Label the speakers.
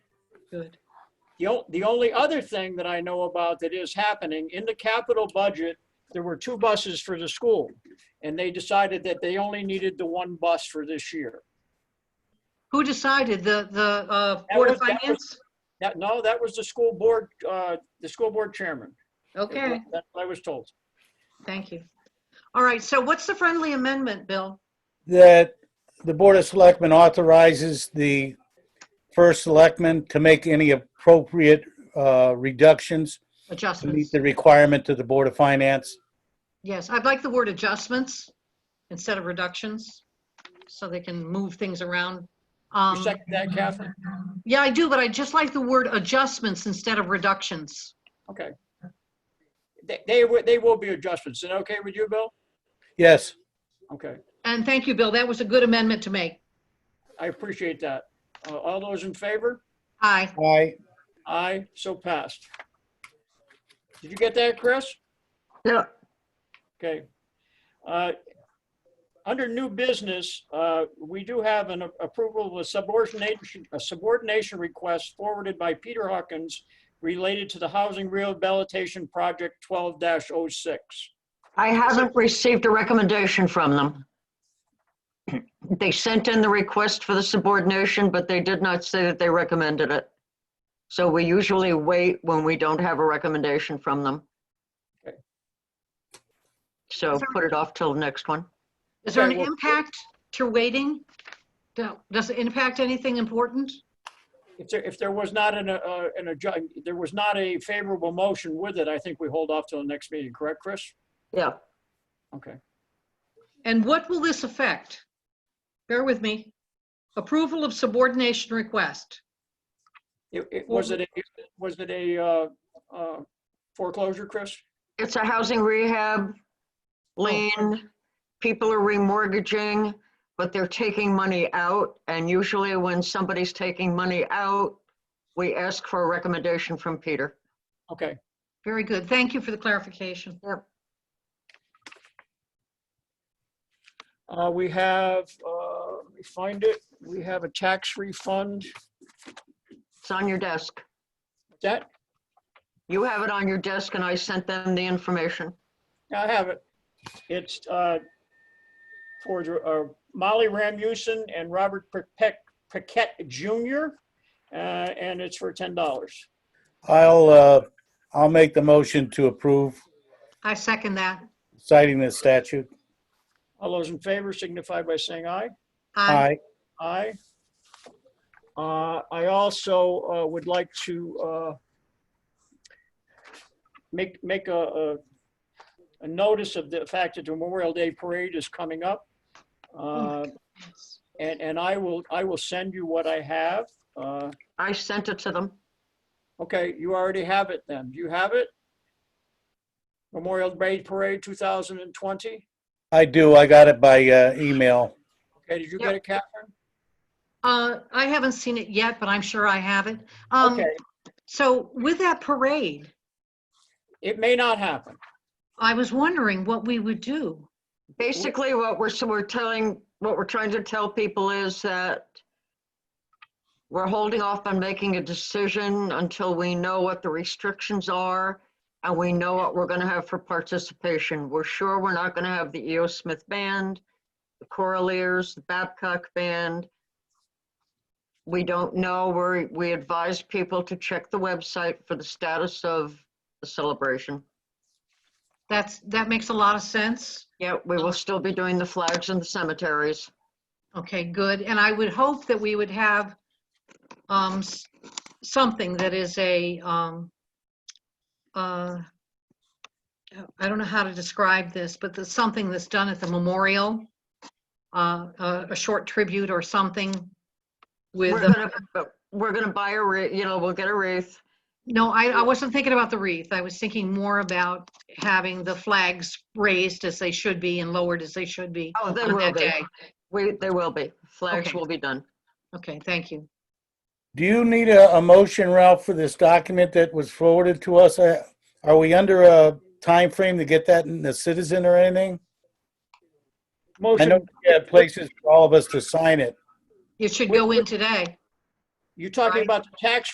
Speaker 1: Good.
Speaker 2: The, o- the only other thing that I know about that is happening, in the capital budget, there were two buses for the school. And they decided that they only needed the one bus for this year.
Speaker 1: Who decided? The, the uh,
Speaker 2: That
Speaker 1: Board of
Speaker 2: was- that was-
Speaker 1: Finance?
Speaker 2: That, no, that was the school board, uh, the school board chairman.
Speaker 1: Okay,
Speaker 2: That's what I was told.
Speaker 1: thank you. All right, so what's the friendly amendment, Bill?
Speaker 3: that the Board of Selectmen authorizes the first selectman to make any appropriate uh, reductions to meet
Speaker 1: Adjustments?
Speaker 3: the requirement to the Board of Finance.
Speaker 1: Yes, I'd like the word adjustments instead of reductions, so they can move things around. Um,
Speaker 2: You second that, Catherine?
Speaker 1: Yeah, I do, but I just like the word adjustments instead of reductions.
Speaker 2: Okay. They, they, wi- they will be adjustments. Is it okay with you, Bill?
Speaker 3: Yes,
Speaker 2: Okay,
Speaker 1: And thank you, Bill. That was a good amendment to make.
Speaker 2: I appreciate that. Uh, All those in favor?
Speaker 1: Aye.
Speaker 3: aye.
Speaker 2: Aye, so passed. Did you get that, Chris?
Speaker 1: Yeah.
Speaker 2: Okay. Uh, Under new business, uh, we do have an approval of a subordination, a subordination request forwarded by Peter Hawkins related to the Housing Rehabilitation Project 12-06.
Speaker 4: I haven't received a recommendation from them. They sent in the request for the subordination, but they did not say that they recommended it. So we usually wait when we don't have a recommendation from them.
Speaker 2: Okay.
Speaker 4: So put it off till next one.
Speaker 1: Is there an
Speaker 2: Okay, well-
Speaker 1: impact to waiting? Do- Does it impact anything important?
Speaker 2: If there, if there was not an, uh, an, adju- there was not a favorable motion with it, I think we hold off till the next meeting, correct, Chris?
Speaker 4: Yeah,
Speaker 2: Okay.
Speaker 1: And what will this affect? Bear with me. Approval of subordination request.
Speaker 2: It, it, was it, a- was it a, uh, uh, foreclosure, Chris?
Speaker 4: it's a housing rehab lien. People are remortgaging, but they're taking money out. And usually when somebody's taking money out, we ask for a recommendation from Peter.
Speaker 2: Okay,
Speaker 1: Very good. Thank you for the clarification.
Speaker 4: Yep.
Speaker 2: uh, we have, uh, let me find it. We have a tax refund.
Speaker 4: It's on your desk.
Speaker 2: That,
Speaker 4: You have it on your desk and I sent them the information.
Speaker 2: I have it. It's, uh, for, the- uh, Molly Ramuson and Robert Paquette, Paquette Jr. Uh, and it's for ten dollars.
Speaker 3: I'll, uh, I'll make the motion to approve
Speaker 1: I second that.
Speaker 3: citing this statute.
Speaker 2: All those in favor signify by saying aye.
Speaker 1: Aye.
Speaker 3: Aye.
Speaker 2: Aye. Uh, I also uh, would like to uh, make, make a, a- a notice of the fact that the Memorial Day Parade is coming up. Uh, And, and I will, I will send you what I have. Uh,
Speaker 4: I sent it to them.
Speaker 2: Okay, you already have it then. Do you have it? Memorial Day Parade 2020?
Speaker 3: I do, I got it by uh, email.
Speaker 2: Okay, did you get it, Catherine?
Speaker 1: Uh, I haven't seen it yet, but I'm sure I have it. Um,
Speaker 2: Okay,
Speaker 1: So with that parade,
Speaker 2: it may not happen.
Speaker 1: I was wondering what we would do.
Speaker 4: Basically, what we're, so we're telling, what we're trying to tell people is that we're holding off on making a decision until we know what the restrictions are and we know what we're gonna have for participation. We're sure we're not gonna have the E.O. Smith Band, the Coraliers, the Babcock Band. We don't know. We're, we advise people to check the website for the status of the celebration.
Speaker 1: That's, that makes a lot of sense.
Speaker 4: Yeah, we will still be doing the flags in the cemeteries.
Speaker 1: Okay, good. And I would hope that we would have um, s- something that is a, um, uh, I don't know how to describe this, but there's something that's done at the memorial, uh, a a short tribute or something with,
Speaker 4: We're
Speaker 1: a-
Speaker 4: gonna, but we're gonna buy a wreath, you know, we'll get a wreath.
Speaker 1: no, I, I wasn't thinking about the wreath. I was thinking more about having the flags raised as they should be and lowered as they should be
Speaker 4: Oh, they
Speaker 1: on
Speaker 4: will
Speaker 1: that
Speaker 4: be.
Speaker 1: day.
Speaker 4: We, they will be. Flags
Speaker 1: Okay.
Speaker 4: will be done.
Speaker 1: Okay, thank you.
Speaker 3: Do you need a, a motion, Ralph, for this document that was forwarded to us? Uh, Are we under a time frame to get that in the citizen or anything? I know
Speaker 2: Motion,
Speaker 3: we have places for all of us to sign it.
Speaker 1: It should go in today.
Speaker 2: you talking
Speaker 1: Right.
Speaker 2: about the tax